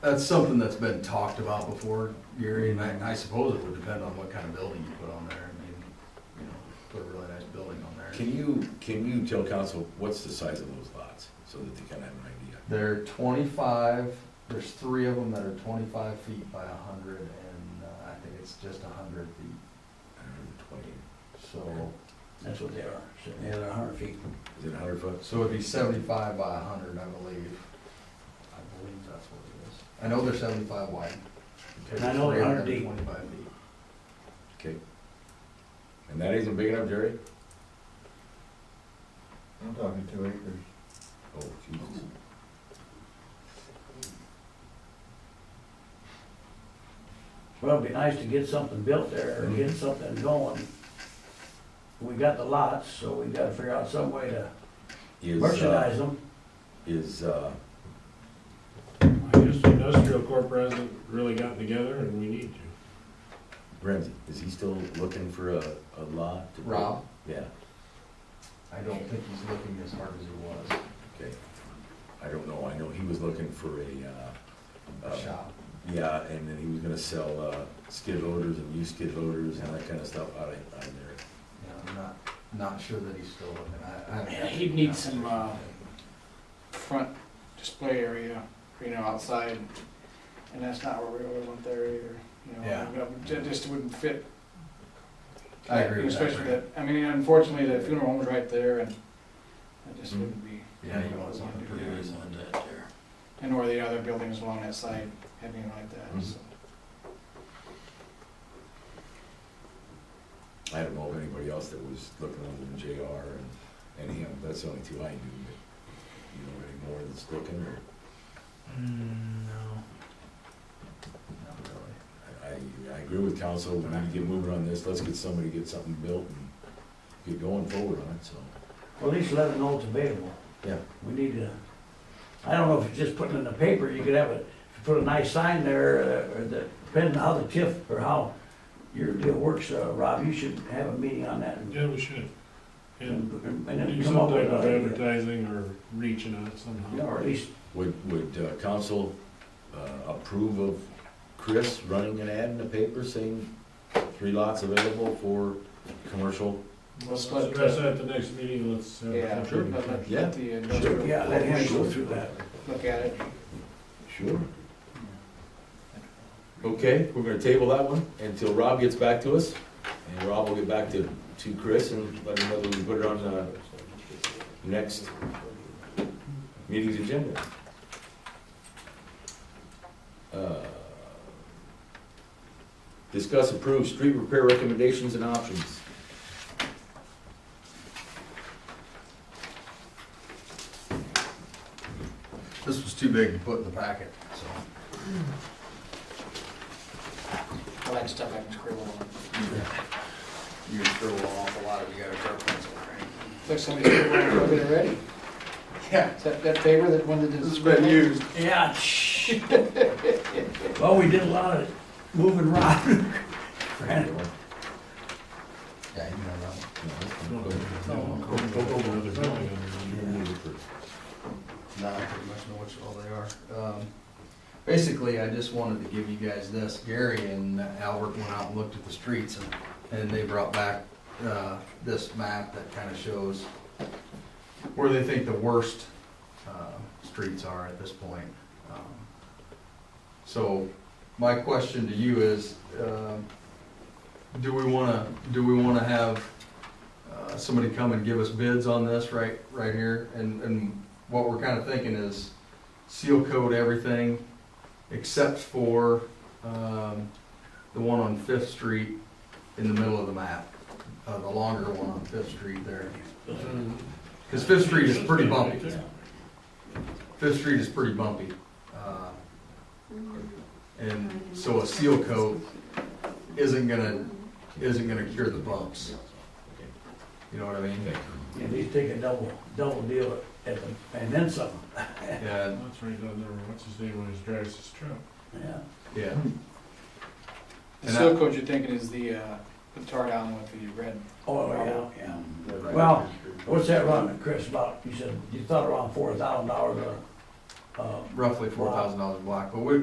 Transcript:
That's something that's been talked about before, Gary, and I, and I suppose it would depend on what kind of building you put on there. I mean, you know, put a really nice building on there. Can you, can you tell council what's the size of those lots, so that they can have an idea? They're twenty-five, there's three of them that are twenty-five feet by a hundred and uh, I think it's just a hundred feet, Hundred and twenty, so. That's what they are, so they are hundred feet. is it a hundred foot? So it'd be seventy-five by hundred, I believe. I believe that's what it is. I know they're seventy-five wide. And I know they're 100 deep. Twenty-five feet. Okay. And that isn't big enough, Jerry? I'm talking two acres. Oh, Jesus. Well, it'd be nice to get something built there, or get something going. We got the lots, so we gotta figure out some way to Is, merchandise uh, them. is, uh, I guess the industrial corp hasn't really gotten together and we need to. Ramsey, is he still looking for a, a lot? to put- Rob, Yeah, I don't think he's looking as hard as he okay. I don't know, I know he was looking for a, uh, was, uh, a shop. yeah, and then he was gonna sell, uh, skid loaders and used skid loaders and that kinda stuff out of, out of there. You know, I'm not, not sure that he's still looking. I, I. haven't- He'd need some, uh, front display area, you know, outside, and that's not what we really want there either, you know. Yeah. Ju- Just wouldn't fit. I agree with that. Especially that, I mean, unfortunately, the funeral home's right there, and that Mm-hmm. just wouldn't be. Yeah, you want something pretty reasonable. that there. And or the other buildings along that side, anything like that, so. Mm-hmm. I don't know of anybody else that was looking other than JR and, and him, that's the only two I knew, but you know any more that's looking, or, No. Not really. I, I, I agree with council, we need to get moving on this, let's get somebody, get something built and get going forward on it, so. Well, at least let them know it's available. Yeah. We need to, I don't know if it's just putting it in the paper, you could have a, put a nice sign there, uh, or the, depending how the TIF, or how your deal works, uh, Rob, you should have a meeting on that and, Yeah, we should. And and do then some come up with type of a, advertising or reaching out you know, somehow. or at least Would, would uh, council uh, approve of Chris running an ad in the paper saying three lots available for commercial? Let's let- Address that at the next meeting, let's. uh, uh, Yeah, sure. let, let- let Yeah. the Sure. industrial Yeah, let him go through that. look at it. Sure. Okay, we're gonna table that one until Rob gets back to us, and Rob will get back to, to Chris and let him know that we put it on the next meeting's agenda. Uh, Discuss approved street repair recommendations and options. This was too big to put in the packet, so. I like stuff I can scribble on. You can throw an awful lot of, you got a sharp pencil, right? Looks somebody scribbled on it already. Yeah. Is that, that paper that one that did. This has been used. Yeah. shh. Well, we did a lot of moving around. Granted, Yeah, you know that. No, go- go over another building under there. No, I pretty much know which all they are. Um, Basically, I just wanted to give you guys this. Gary and Albert went out and looked at the streets and, and they brought back, uh, this map that kind of shows where they think the worst, uh, streets are at this point. Um, So my question to you is, um, do we wanna, do we wanna have, uh, somebody come and give us bids on this right, right here? And, and what we're kind of thinking is seal coat everything except for, um, the one on Fifth Street in the middle of the map, uh, the longer one on Fifth Street there. Mm-hmm. Cause Fifth Street is pretty bumpy. Fifth Street is pretty bumpy. uh, And so a seal coat isn't gonna, isn't gonna cure the bumps. You know what I mean? At least take a double, double deal at the, and then some, And, That's right down there, what's his name, when he drives his truck. yeah. yeah, The seal coat you're thinking is the, uh, the tar down with the red. Oh, yeah, yeah. Well, what's that running, Chris, about, you said, you thought around four thousand dollars a, um, roughly four thousand dollars a block, but we,